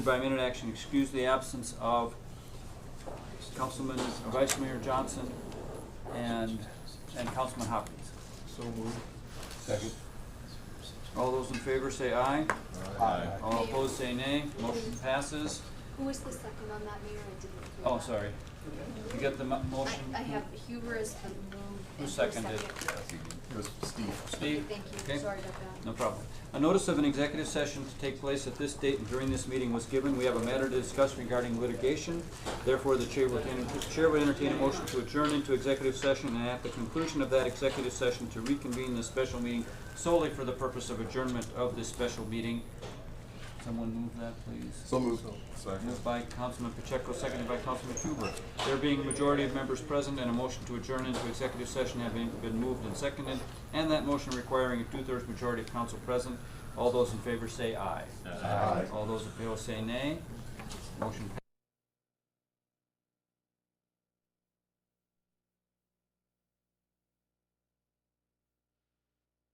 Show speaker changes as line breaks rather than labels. By minute action, excuse the absence of Councilman uh, Vice Mayor Johnson and, and Councilman Hopkins.
So moved.
Second.
All those in favor say aye.
Aye.
All opposed say nay. Motion passes.
Who was the second on that, Mayor? I didn't. hear
Oh,
that.
sorry. You got the mo-
I,
motion?
I have Huber as the move.
Who seconded?
It was Steve.
Steve?
Thank you,
Okay.
sorry about that.
No problem. A notice of an executive session to take place at this date and during this meeting was given. We have a matter to discuss regarding litigation. Therefore, the chair would enter- chair would entertain a motion to adjourn into executive session and at the conclusion of that executive session to reconvene this special meeting solely for the purpose of adjournment of this special meeting. Someone move that, please.
So moved. Second.
Moved by Councilman Pacheco, seconded by Councilman Huber. There being majority of members present and a motion to adjourn into executive session having been moved and seconded, and that motion requiring a two-thirds majority of council present, all those in favor say aye. Aye. All those opposed say nay. Motion